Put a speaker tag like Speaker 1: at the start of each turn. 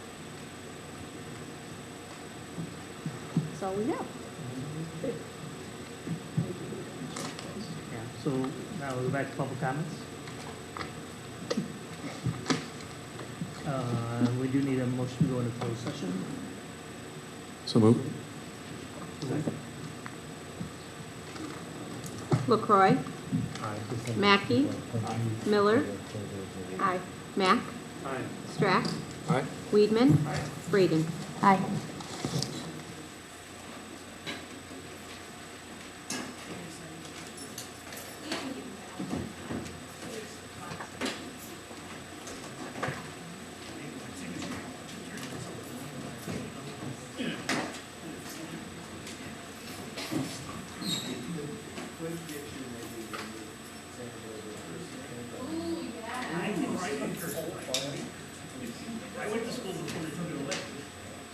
Speaker 1: that's all we have.
Speaker 2: Yeah, so now we'll go back to public comments. Uh, we do need a motion to go into closed session.
Speaker 3: So move.
Speaker 1: LaCroy,
Speaker 2: Aye.
Speaker 1: Mackey, Miller, aye. Mack,
Speaker 2: Aye.
Speaker 1: Strack,
Speaker 3: Aye.
Speaker 1: Weedman, Braden.
Speaker 4: Aye.